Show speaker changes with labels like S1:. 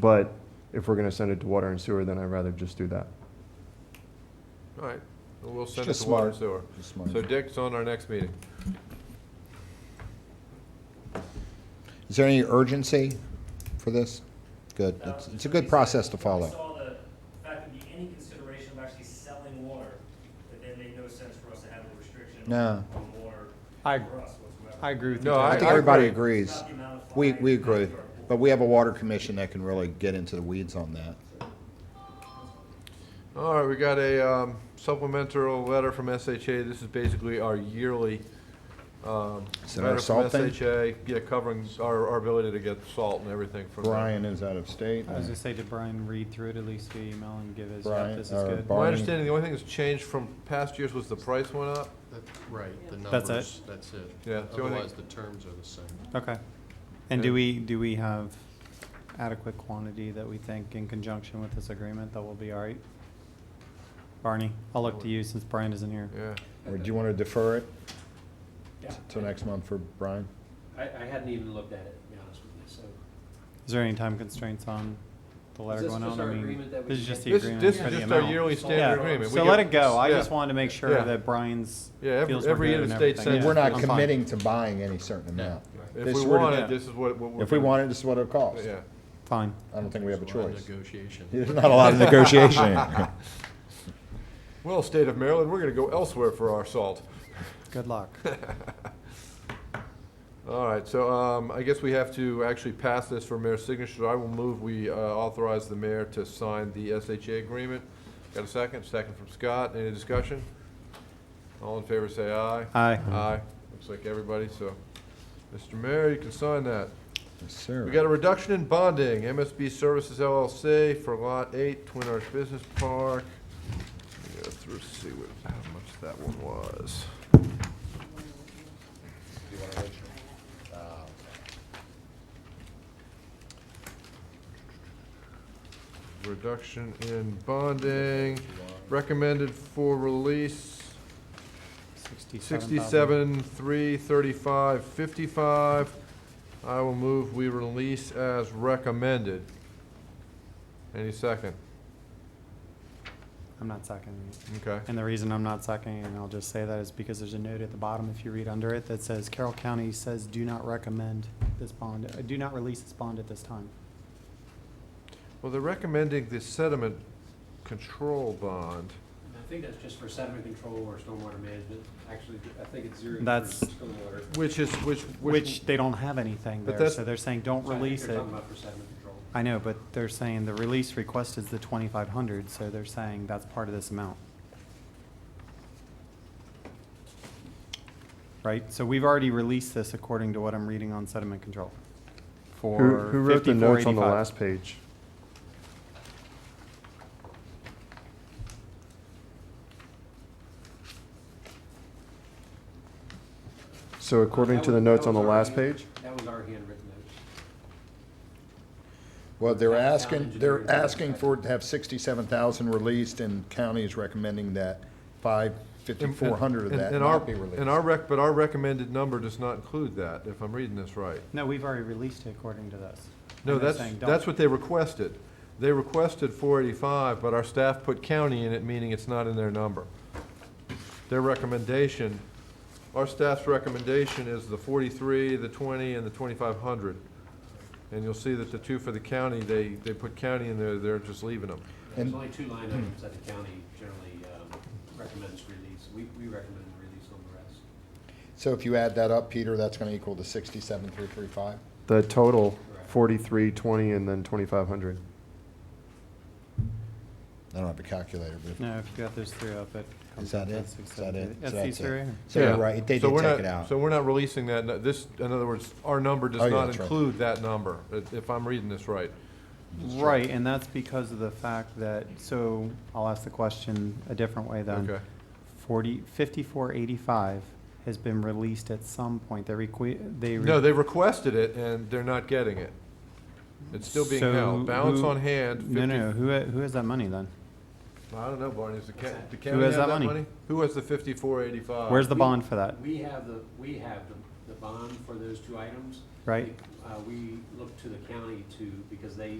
S1: But if we're gonna send it to water and sewer, then I'd rather just do that.
S2: All right, well, we'll send it
S3: just
S2: to water and sewer.
S3: smart. It's smart.
S2: So Dick's on our next meeting.
S3: Is there any urgency for this? Good.
S4: Um,
S3: It's, it's a good process to
S4: I
S3: follow.
S4: saw the fact there'd be any consideration of actually selling water, that then made no sense for us to have a restriction
S3: No.
S4: on water
S5: I,
S4: for us whatsoever.
S5: I agree with you.
S2: No,
S3: I
S5: Tom.
S3: think
S2: I
S3: everybody
S2: agree.
S3: agrees. We, we agree. But we have a water commission that can really get into the weeds on that.
S2: All right, we got a um, supplemental letter from SHA. This is basically our yearly um,
S3: Is it our
S2: letter from
S3: salt thing?
S2: SHA. Yeah, covering our, our ability to get salt and everything from. them.
S3: Brian is out of state.
S5: I was gonna say, did Brian read through it at least via email and give his, yeah,
S3: Brian,
S5: this is
S3: or
S5: good?
S3: Bar-
S2: My
S3: Barney.
S2: understanding, the only thing that's changed from past years was the price went up.
S6: That- Right, the
S5: That's it?
S6: numbers, that's it.
S2: Yeah, it's the only thing-
S6: Otherwise, the terms are the same.
S5: Okay. And do we, do we have adequate quantity that we think in conjunction with this agreement that will be all right? Barney, I'll look to you since Brian isn't here.
S2: Yeah.
S3: Or do you want to defer it
S7: Yeah,
S3: till next month for Brian?
S7: I, I hadn't even looked at it, to be honest with you, so.
S5: Is there any time constraints on the letter
S7: this
S5: going
S7: just
S5: out? I
S7: our
S5: mean,
S7: agreement that we
S5: this is
S7: can
S5: just the
S7: get?
S2: This,
S5: agreement
S2: this
S5: for
S2: is
S5: the
S2: just our
S5: amount.
S2: yearly standard
S5: Yeah,
S2: agreement. We
S5: So
S2: get-
S5: let it go. I
S2: yeah.
S5: just wanted to make sure
S2: Yeah.
S5: that Brian's
S2: Yeah, every-
S5: feels we're
S2: every
S5: good and
S2: interstate
S5: everything.
S2: Yeah,
S3: We're not
S5: I'm fine.
S3: committing to buying any certain amount.
S2: If
S3: This
S2: we
S3: were to-
S2: want
S5: yeah.
S2: it, this is what, what we're.
S3: If we
S2: gonna-
S3: want it, this is what it'll cost.
S2: Yeah.
S5: Fine.
S3: I don't think we have a
S6: There's lot of
S3: choice.
S6: Negotiation.
S3: There's not a lot of negotiation.
S2: Well, state of Maryland, we're gonna go elsewhere for our salt.
S5: Good luck.
S2: All right, so um, I guess we have to actually pass this for mayor's signature. I will move we uh, authorize the mayor to sign the SHA agreement. Got a second? Second from Scott. Any discussion? All in favor, say aye.
S5: Aye.
S2: Aye. Looks like everybody, so. Mr. Mayor, you can sign that.
S3: Yes, sir.
S2: We got a reduction in bonding, MSB Services LLC for Lot 8, Twin Arch Business Park. Let me Go through, see what, how much that one was.
S6: You want to mention? Uh,
S2: Reduction in bonding, recommended for release, sixty-seven, three, thirty-five, fifty-five. I will move we release as recommended. Any second?
S5: I'm not seconding it.
S2: Okay.
S5: And the reason I'm not seconding, it, and I'll just say that, is because there's a note at the bottom, if you read under it, that says Carroll County says do not recommend this bond, uh, do not release this bond at this time.
S2: Well, they're recommending the sediment control bond.
S7: I think that's just for sediment control or stormwater management. Actually, I think it's zero. for
S5: That's-
S7: stormwater.
S2: Which is, which,
S5: Which they don't have anything
S2: But
S5: there,
S2: that's-
S5: so they're saying don't
S7: So I think
S5: release
S7: They're
S5: it.
S7: talking about for sediment control.
S5: I know, but they're saying the release request is the twenty-five hundred, so they're saying that's part of this amount. Right, so we've already released this according to what I'm reading on sediment control.
S1: Who,
S5: For
S1: who wrote the notes on the
S5: 5485.
S1: last page? So according
S7: That
S1: to the
S7: was-
S1: notes
S7: that
S1: on the
S7: was our
S1: last
S7: hand-
S1: page?
S7: That was our handwritten notes.
S3: Well, they're
S7: Town
S3: asking, they're
S7: engineer.
S3: asking for it to have sixty-seven thousand released, and county is recommending that five, fifty-four hundred of
S2: And-
S3: that
S2: and our-
S3: not be released.
S2: And our rec, but our recommended number does not include that, if I'm reading this right.
S5: No, we've already released it according to this.
S2: No,
S5: And they're
S2: that's,
S5: saying don't.
S2: that's what they requested. They requested four eighty-five, but our staff put county in it, meaning it's not in their number. Their recommendation, our staff's recommendation is the forty-three, the twenty, and the twenty-five hundred. And you'll see that the two for the county, they, they put county in there, they're just leaving them.
S3: And-
S7: There's only two line items that the county generally um, recommends release. We, we recommend release on the rest.
S3: So if you add that up, Peter, that's gonna equal the sixty-seven, three, three, five?
S1: The total,
S7: Correct.
S1: forty-three, twenty, and then twenty-five hundred.
S3: I don't have a calculator, but
S5: No, if you got those three up, it
S3: is
S5: comes
S3: that
S5: out
S3: it?
S5: at
S3: Is
S5: six
S3: that
S5: seventy.
S3: it?
S5: That's
S3: So
S5: these
S3: it.
S5: three right here.
S3: So you're
S2: Yeah.
S3: right, they
S2: So
S3: did
S2: we're
S3: take
S2: not-
S3: it out.
S2: So we're not releasing that, nu- this, in other words, our number
S3: Oh,
S2: does
S3: yeah,
S2: not
S3: that's right.
S2: include that number, if if I'm reading this right.
S5: Right, and that's because of the fact that, so I'll ask the question a different way then.
S2: Okay.
S5: Forty, fifty-four eighty-five has been released at some point. They requi, they. re-
S2: No, they requested it, and they're not getting it. It's still being
S5: So
S2: held. Balance
S5: who-
S2: on hand, fifty.
S5: No, no, who, ha- who has that money then?
S2: I don't know, Barney, is the county, the
S5: Who
S2: county have
S5: has that
S2: that
S5: money?
S2: money? Who has the fifty-four eighty-five?
S5: Where's the
S7: We-
S5: bond for that?
S7: We have the, we have the, the bond for those two items.
S5: Right.
S7: Uh, we look to the county to, because they